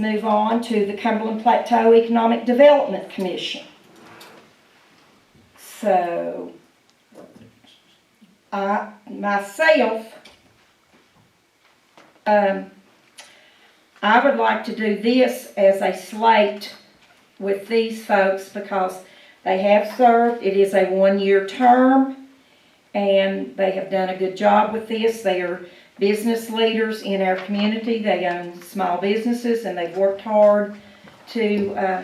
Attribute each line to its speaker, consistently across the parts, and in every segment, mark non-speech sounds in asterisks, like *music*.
Speaker 1: Move on to the Cumberland Plateau Economic Development Commission. So, I, myself, um, I would like to do this as a slate with these folks because they have served, it is a one-year term, and they have done a good job with this. They are business leaders in our community. They own small businesses and they've worked hard to uh,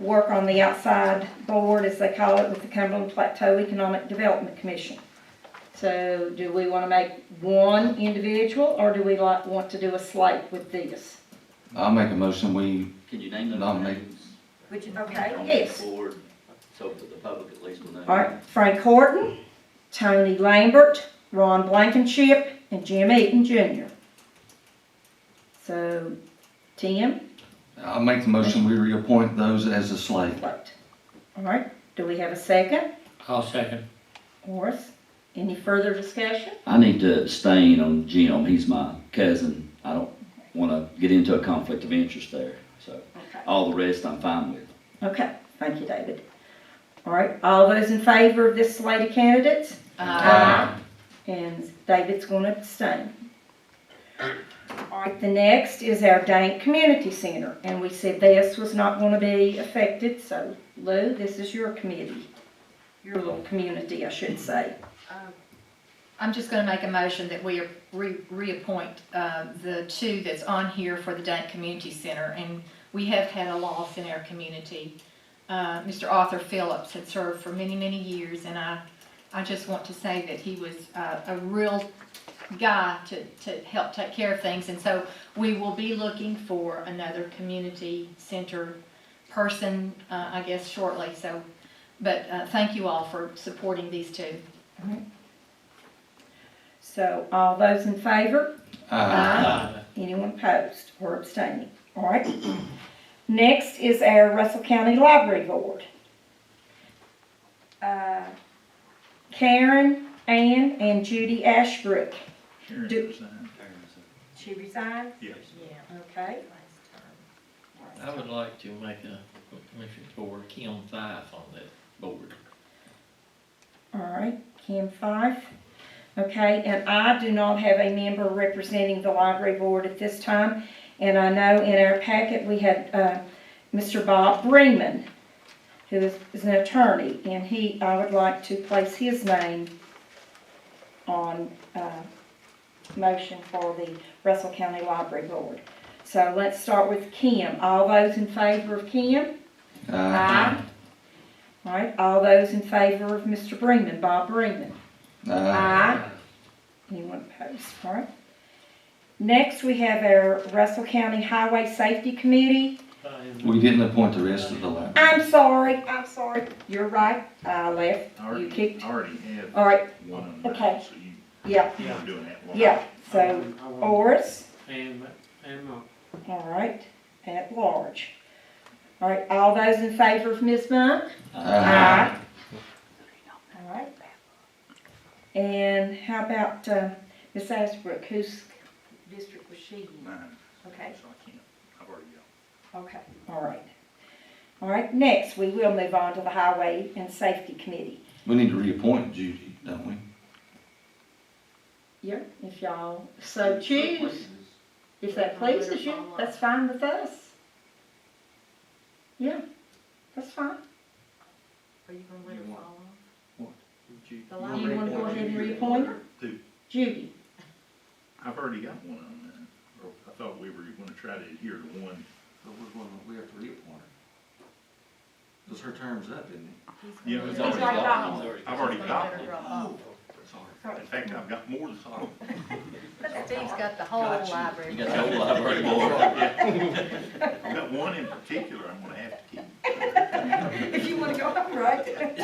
Speaker 1: work on the outside board, as they call it, with the Cumberland Plateau Economic Development Commission. So do we want to make one individual or do we like, want to do a slate with this?
Speaker 2: I'll make a motion, we,
Speaker 3: Can you name those
Speaker 2: Nominate.
Speaker 3: names?
Speaker 4: Would you,
Speaker 3: On
Speaker 4: okay,
Speaker 3: the
Speaker 1: Yes.
Speaker 3: board, so that the public at least will know.
Speaker 1: All right, Frank Horton, Tony Lambert, Ron Blankenship, and Jim Eaton Jr. So, Tim?
Speaker 2: I'll make the motion, we reappoint those as a slate.
Speaker 1: Vote. All right, do we have a second?
Speaker 5: I'll second.
Speaker 1: Morris, any further discussion?
Speaker 3: I need to abstain on Jim, he's my cousin. I don't wanna get into a conflict of interest there, so
Speaker 1: Okay.
Speaker 3: all the rest I'm fine with.
Speaker 1: Okay, thank you, David. All right, all those in favor of this slate of candidates?
Speaker 2: Aye.
Speaker 1: And David's going to abstain. All right, the next is our Dank Community Center, and we said this was not going to be affected, so Lou, this is your committee, your little community, I should say.
Speaker 4: I'm just gonna make a motion that we re- reappoint, uh, the two that's on here for the Dunk Community Center, and we have had a loss in our community. Uh, Mr. Arthur Phillips had served for many, many years, and I, I just want to say that he was, uh, a real guy to, to help take care of things, and so we will be looking for another community center person, uh, I guess shortly, so, but, uh, thank you all for supporting these two.
Speaker 1: So all those in favor?
Speaker 2: Aye.
Speaker 5: Aye.
Speaker 1: Uh, Anyone opposed or abstaining? All right. Next is our Russell County Library Board. Uh, Karen, Ann, and Judy Ashbrook. Do- She resigned?
Speaker 6: Yes.
Speaker 4: Yeah.
Speaker 1: Okay.
Speaker 5: I would like to make a commission for Kim Fife on that board.
Speaker 1: All right, Kim Fife. Okay, and I do not have a member representing the library board at this time. And I know in our packet, we had uh, Mr. Bob Bremen, who is is an attorney, and he, I would like to place his name on uh, motion for the Russell County Library Board. So let's start with Kim. All those in favor of Kim?
Speaker 2: Aye.
Speaker 1: All right, all those in favor of Mr. Bremen, Bob Bremen?
Speaker 2: Aye.
Speaker 1: Anyone opposed? All right. Next, we have our Russell County Highway Safety Committee.
Speaker 2: We didn't appoint the rest of the library.
Speaker 1: I'm sorry, I'm sorry. You're right, I left.
Speaker 6: I already-
Speaker 1: You kicked-
Speaker 6: I already have
Speaker 1: All right,
Speaker 6: one of them,
Speaker 1: Okay.
Speaker 6: so you,
Speaker 1: yeah,
Speaker 6: you're doing that one.
Speaker 1: yeah. So, Oris,
Speaker 5: And, and,
Speaker 1: all right, at large. All right, all those in favor of Ms. Monk?
Speaker 2: Aye.
Speaker 1: All right. And how about uh, Ms. Asbrook, whose district was she in?
Speaker 6: Mine, so
Speaker 1: Okay.
Speaker 6: I can't, I've already got.
Speaker 1: Okay, all right. All right, next, we will move on to the Highway and Safety Committee.
Speaker 2: We need to reappoint Judy, don't we?
Speaker 1: Yeah. If y'all so choose, if that pleases you, that's fine with us. Yeah, that's fine.
Speaker 4: Are you gonna
Speaker 6: let her fall
Speaker 1: Do
Speaker 4: The
Speaker 1: you wanna go ahead and reappoint her?
Speaker 6: Who?
Speaker 1: Judy,
Speaker 6: I've already got one on mine, or I thought we were gonna try to adhere to one.
Speaker 7: But we're going, we have to reappoint her. Because her term's up, isn't it? Oh,
Speaker 6: Yeah, it's
Speaker 4: He's
Speaker 6: already
Speaker 4: already
Speaker 6: got,
Speaker 4: got one.
Speaker 6: I've already got one.
Speaker 7: Sorry.
Speaker 6: In fact, I've got more than one.
Speaker 4: Steve's got the whole
Speaker 7: Got you.
Speaker 4: library.
Speaker 3: You got the whole library board.
Speaker 6: Yeah. *laughs* I've got one in particular I'm gonna have to
Speaker 1: *laughs*
Speaker 6: keep.
Speaker 1: if you wanna go home, right?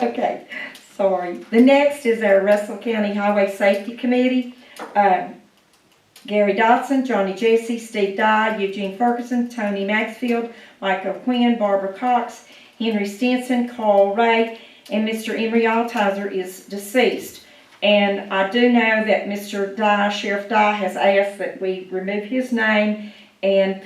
Speaker 1: Okay, sorry. The next is our Russell County Highway Safety Committee. Um, Gary Dodson, Johnny Jesse, Steve Dodd, Eugene Ferguson, Tony Maxfield, Michael Quinn, Barbara Cox, Henry Stinson, Carl Ray, and Mr. Emery Altizer is deceased. And I do know that Mr. Dye, Sheriff Dye, has asked that we remove his name and